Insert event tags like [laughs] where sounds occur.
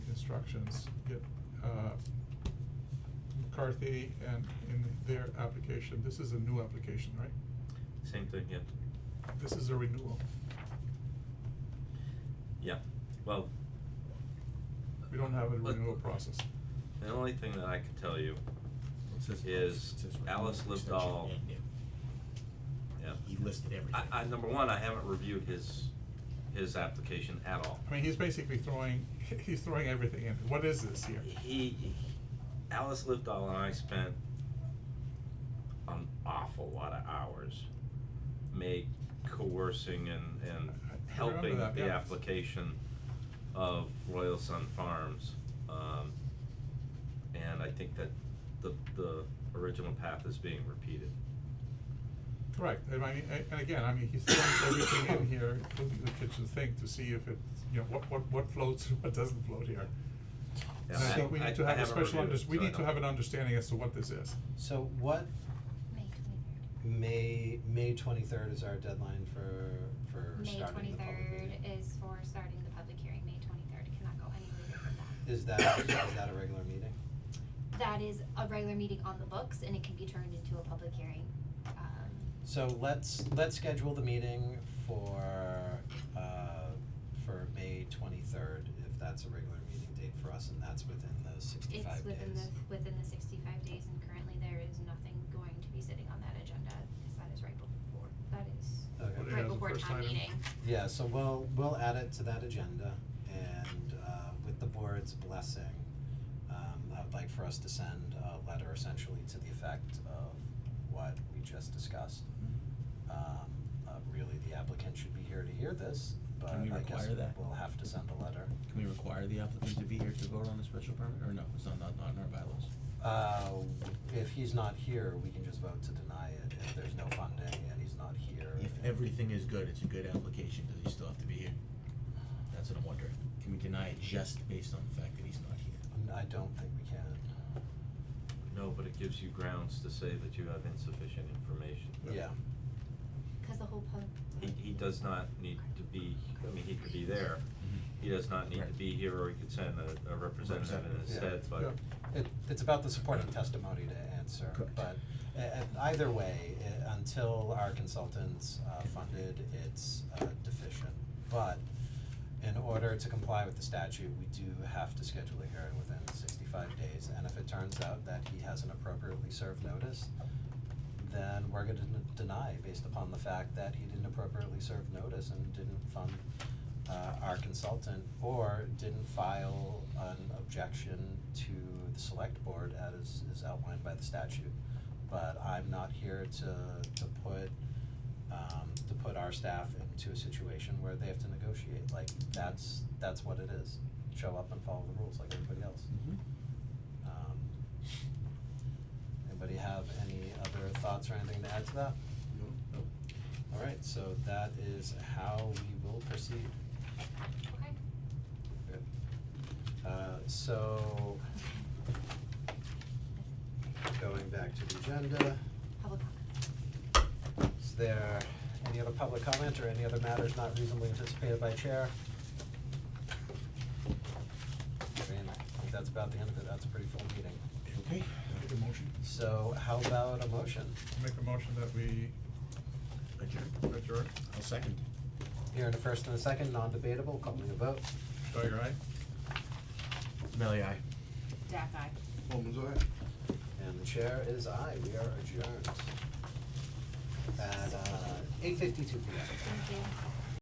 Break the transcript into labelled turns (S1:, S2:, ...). S1: instructions, get, uh, McCarthy and in their application, this is a new application, right?
S2: Same thing, yeah.
S1: This is a renewal.
S2: Yeah, well.
S1: We don't have a
S2: But-
S1: renewal process.
S2: The only thing that I can tell you,
S3: It says-
S2: is
S3: it says right
S2: Alice
S3: here,
S2: lived
S3: extension
S2: all-
S3: and new.
S2: yeah.
S3: He listed everything.
S2: I, I, number one, I haven't reviewed his, his application at all.
S1: I mean, he's basically throwing, [laughs] he's throwing everything in. What is this here?
S2: He, Alice Livedall and I spent an awful lot of hours make coercing and, and
S1: I- I
S2: helping
S1: remember that,
S2: the
S1: yeah.
S2: application of Royal Sun Farms. Um, and I think that the, the original path is being repeated.
S1: Correct, and I mean, a- and again, I mean, he's throwing everything in here, including the kitchen sink, to see if it, you know, what, what, what floats and what doesn't float here.
S2: Yeah,
S1: And I
S2: I-
S1: think we
S2: I-
S1: need to
S2: I
S1: have a
S2: haven't
S1: special
S2: reviewed
S1: under,
S2: it,
S1: we
S2: so I
S1: need to
S2: don't-
S1: have an understanding as to what this is.
S4: So what,
S5: May twenty-third.
S4: May, May twenty-third is our deadline for, for
S5: May
S4: starting the public
S5: twenty-third
S4: meeting.
S5: is for starting the public hearing, May twenty-third, cannot go any later than that.
S4: Is that, is that a regular meeting?
S5: That is a regular meeting on the books and it can be turned into a public hearing, um,
S4: So let's, let's schedule the meeting for, uh, for May twenty-third, if that's a regular meeting date for us, and that's within those sixty-five days.
S5: it's within the, within the sixty-five days and currently there is nothing going to be sitting on that agenda, cause that is right before, that is
S4: Okay.
S1: Put it as
S5: right
S1: a
S5: before
S1: first
S5: town
S1: item.
S5: meeting.
S4: Yeah, so we'll, we'll add it to that agenda, and, uh, with the board's blessing, um, I would like for us to send a letter essentially to the effect of what we just discussed. Um, uh, really, the applicant should be here to hear this, but
S3: Can we
S4: I guess
S3: require that?
S4: we'll have to send a letter.
S3: Can we require the applicant to be here to vote on the special permit, or no, it's not, not, not in our bylaws?
S4: Uh, if he's not here, we can just vote to deny it, if there's no funding and he's not here.
S3: If everything is good, it's a good application, does he still have to be here? That's what I'm wondering, can we deny it just based on the fact that he's not here?
S4: I don't think we can,
S2: No, but it gives you grounds to say that you have insufficient information.
S4: yeah.
S5: Cause the whole pub,
S2: He, he does not need to be, I mean, he could be there, he does not need to
S3: Right.
S2: be here, or he could send a, a representative in
S3: Representative.
S2: his
S4: Yeah.
S2: stead, but
S4: It, it's about the supporting testimony to answer,
S3: Correct.
S4: but uh, uh, either way, uh, until our consultants, uh, funded, it's, uh, deficient. But in order to comply with the statute, we do have to schedule a hearing within sixty-five days, and if it turns out that he hasn't appropriately served notice, then we're gonna den- deny based upon the fact that he didn't appropriately serve notice and didn't fund uh our consultant or didn't file an objection to the select board as is outlined by the statute. But I'm not here to to put um to put our staff into a situation where they have to negotiate, like that's that's what it is. Show up and follow the rules like everybody else. Um anybody have any other thoughts or anything to add to that?
S3: Nope.
S4: Alright, so that is how we will proceed.
S5: okay. [laughs]
S4: Uh, so, going back to the agenda,
S5: Public comments.
S4: is there any other public comment or any other matters not reasonably anticipated by chair? I mean, I think that's about the end of it, that's a pretty full meeting.
S3: Okay.
S1: Make a motion.
S4: So how about a motion?
S1: Make a motion that we
S3: Adjourn.
S1: adjourn.
S3: I'll second.
S4: Here in a first and a second, non-debatable, calling a vote.
S1: Dwyer, aye?
S3: Melly, aye.
S5: Jack, I.
S4: And the chair is aye, we are adjourned. At, uh, eight fifty-two P M.
S5: Thank you.